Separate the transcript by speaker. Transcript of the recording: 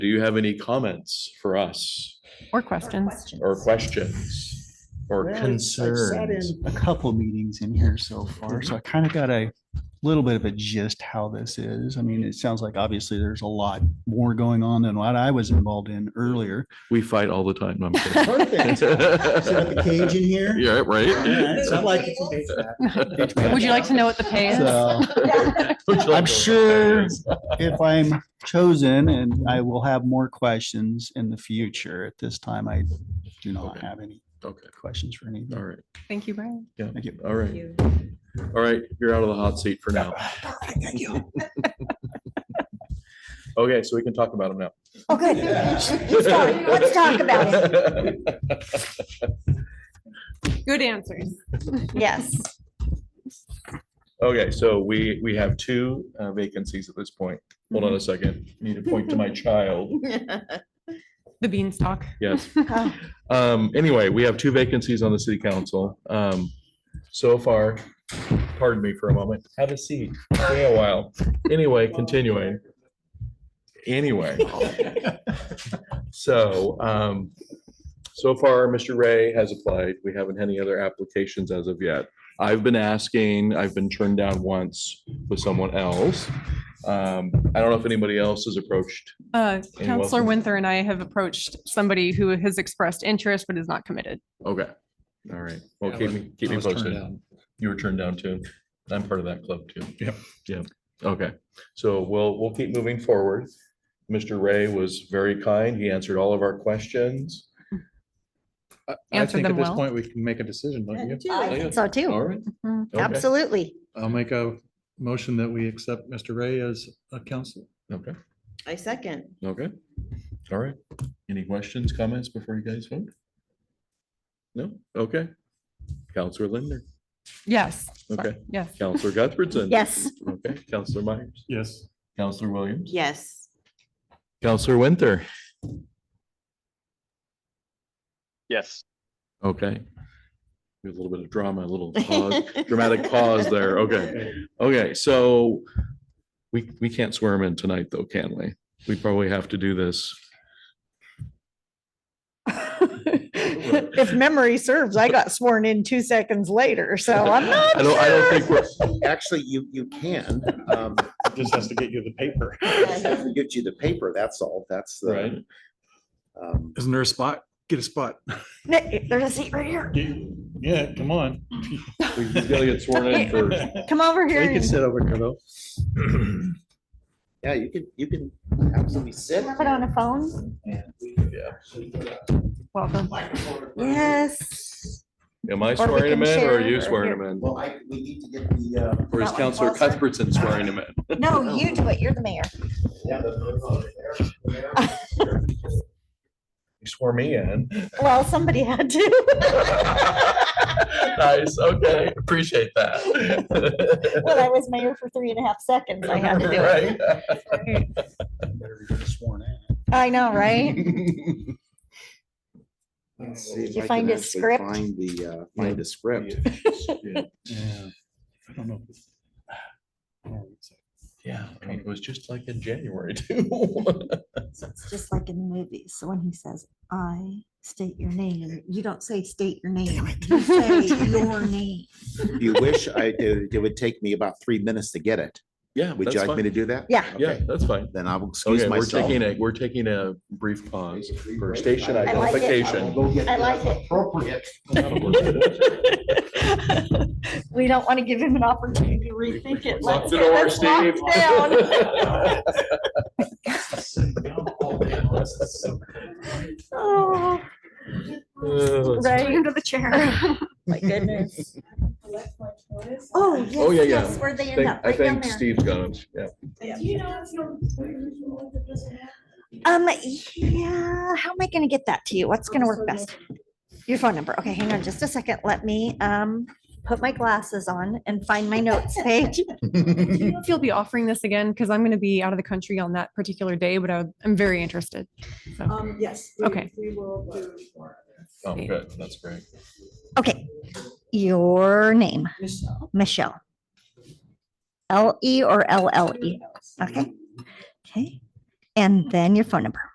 Speaker 1: Do you have any comments for us
Speaker 2: Or questions.
Speaker 1: or questions or
Speaker 3: Well, I've- I've sat
Speaker 1: concerns?
Speaker 3: in A couple meetings in here so far, so I kind of got a little bit of a gist how this is. I mean, it sounds like obviously there's a lot more going on than what I was involved in earlier.
Speaker 1: We fight all the time. no, I'm kidding.
Speaker 3: Perfect. Set up a cage in here.
Speaker 1: Yeah,
Speaker 3: Alright, so I'd
Speaker 1: right.
Speaker 3: like to debate that.
Speaker 2: Would you like to know what the pay is?
Speaker 3: So
Speaker 4: Oh,
Speaker 1: Would you like to know what that
Speaker 3: sure-
Speaker 1: is?
Speaker 3: if I'm chosen and I will have more questions in the future, at this time, I do not
Speaker 1: Okay.
Speaker 3: have any
Speaker 1: Okay,
Speaker 3: questions for
Speaker 1: all
Speaker 3: anything.
Speaker 1: right,
Speaker 2: Thank you, Brian.
Speaker 3: Thank you.
Speaker 1: all right, all right. You're out of the hot seat for now.
Speaker 3: Thank you.
Speaker 1: Okay, so we can talk about them now.
Speaker 4: Oh, good. It's fine. Let's talk about it.
Speaker 2: Good answers.
Speaker 4: Yes.
Speaker 1: Okay, so we, we have two uh, vacancies at this point. Hold on a second. Need to point to my child.
Speaker 2: The beanstalk.
Speaker 1: Yes.
Speaker 4: Oh.
Speaker 1: Um, anyway, we have two vacancies on the city council. Um, so far, pardon me for a moment. Have a seat. Stay a while. Anyway, continuing. Anyway. So, um, so far, Mr. Ray has applied. We haven't had any other applications as of yet. I've been asking, I've been turned down once with someone else. Um, I don't know if anybody else has approached.
Speaker 2: Uh,
Speaker 1: And
Speaker 2: Counselor
Speaker 1: welcome.
Speaker 2: Winther and I have approached somebody who has expressed interest but is not committed.
Speaker 1: Okay. All right. Well,
Speaker 5: Yeah, I
Speaker 1: keep
Speaker 5: was-
Speaker 1: me, keep
Speaker 5: I
Speaker 1: me
Speaker 5: was turned
Speaker 1: posted.
Speaker 5: down.
Speaker 1: You were turned down too. I'm part of that club too.
Speaker 5: Yep.
Speaker 1: Yeah. Okay. So we'll, we'll keep moving forward. Mr. Ray was very kind. He answered all of our questions.
Speaker 5: Uh, I- I
Speaker 2: Answered
Speaker 5: think
Speaker 2: them
Speaker 5: At this
Speaker 2: well.
Speaker 5: point, we can make a decision, don't you?
Speaker 4: I think So
Speaker 5: All
Speaker 4: too.
Speaker 5: right,
Speaker 1: Okay.
Speaker 4: Absolutely.
Speaker 5: I'll make a motion that we accept Mr. Ray as a counselor.
Speaker 1: Okay.
Speaker 6: I second.
Speaker 1: Okay. All right. Any questions, comments before you guys vote? No? Okay. Counselor Linder.
Speaker 2: Yes.
Speaker 1: Okay.
Speaker 2: Yes.
Speaker 1: Counselor Guthbertson.
Speaker 4: Yes.
Speaker 1: Okay. Counselor Myers.
Speaker 5: Yes.
Speaker 1: Counselor Williams.
Speaker 6: Yes.
Speaker 1: Counselor Winter.
Speaker 7: Yes.
Speaker 1: Okay. A little bit of drama, a little pause, dramatic pause there. Okay. Okay, so we, we can't swear him in tonight though, can we? We probably have to do this.
Speaker 8: If memory serves, I got sworn in two seconds later, so I'm not.
Speaker 1: I don't, I don't think we're,
Speaker 9: Actually, you, you can. um,
Speaker 5: Just has to get you the paper.
Speaker 9: just have to Get you the paper, that's all, that's
Speaker 1: right?
Speaker 9: the. um,
Speaker 5: Isn't there a spot? Get a spot.
Speaker 4: Nick, There's a seat right here.
Speaker 5: Yeah, come on.
Speaker 1: We- He's gotta get sworn in first.
Speaker 4: Come over here.
Speaker 5: We can
Speaker 4: and-
Speaker 5: sit over here though.
Speaker 9: Yeah, you can, you can absolutely sit.
Speaker 4: Have it on a phone?
Speaker 2: Welcome.
Speaker 4: Yes.
Speaker 1: Am I
Speaker 4: Or we
Speaker 1: swearing him
Speaker 4: can
Speaker 1: in or are
Speaker 4: share
Speaker 1: you
Speaker 4: or
Speaker 1: swearing him
Speaker 4: here.
Speaker 1: in?
Speaker 9: Well, I, we need to get the, uh.
Speaker 1: Or is
Speaker 4: That one
Speaker 1: Counselor
Speaker 4: closer?
Speaker 1: Cuthbertson swearing him in?
Speaker 4: No, you do it. You're the mayor.
Speaker 9: yeah, the-
Speaker 1: He swore me in.
Speaker 4: Well, somebody had to.
Speaker 1: Nice, okay, appreciate that.
Speaker 4: When I was mayor for three and a half seconds, I had to do it.
Speaker 1: Right.
Speaker 3: Better get Sworn in.
Speaker 4: I know, right?
Speaker 9: Let's see if
Speaker 4: Did you
Speaker 9: I can
Speaker 4: find his
Speaker 9: actually
Speaker 4: script?
Speaker 9: Find the, uh, find the script.
Speaker 5: Yeah. I don't know.
Speaker 1: Yeah, I mean, it was just like in January too.
Speaker 4: So It's just like in the movies. So when he says, I state your name, you don't say state your name. You say your name.
Speaker 9: You wish I, it it would take me about three minutes to get it.
Speaker 1: Yeah,
Speaker 9: Would
Speaker 1: that's
Speaker 9: you like me
Speaker 1: fine.
Speaker 9: to do that?
Speaker 4: Yeah.
Speaker 1: Yeah,
Speaker 9: Okay,
Speaker 1: that's fine.
Speaker 9: Then I will excuse
Speaker 1: Okay, we're
Speaker 9: myself.
Speaker 1: taking a, we're taking a brief pause for station
Speaker 9: I
Speaker 4: like it.
Speaker 1: identification.
Speaker 4: I like it.
Speaker 9: Appropriate.
Speaker 4: We don't want to give him an opportunity to rethink it.
Speaker 1: Lock
Speaker 4: Let's
Speaker 1: the
Speaker 4: get-
Speaker 1: door,
Speaker 4: let's lock
Speaker 1: Steve.
Speaker 4: it down. Oh,
Speaker 1: Uh,
Speaker 4: Right into the chair. My goodness. Oh,
Speaker 1: Oh, yeah,
Speaker 4: yes,
Speaker 1: yeah.
Speaker 4: yes, where they
Speaker 1: I
Speaker 4: end
Speaker 1: think-
Speaker 4: up,
Speaker 1: I
Speaker 4: right down
Speaker 1: think
Speaker 4: there.
Speaker 1: Steve's got him, yeah.
Speaker 4: Um, yeah, how am I gonna get that to you? What's gonna work best? Your phone number. Okay, hang on just a second. Let me, um, put my glasses on and find my notes page.
Speaker 2: Do you know If you'll be offering this again, because I'm going to be out of the country on that particular day, but I would- I'm very interested. So,
Speaker 8: Um, yes.
Speaker 2: we- Okay.
Speaker 8: We will do
Speaker 1: Oh, good, that's great.
Speaker 4: Okay, your name,
Speaker 8: Michelle.
Speaker 4: Michelle. L E or L L E? Okay. Okay, and then your phone number.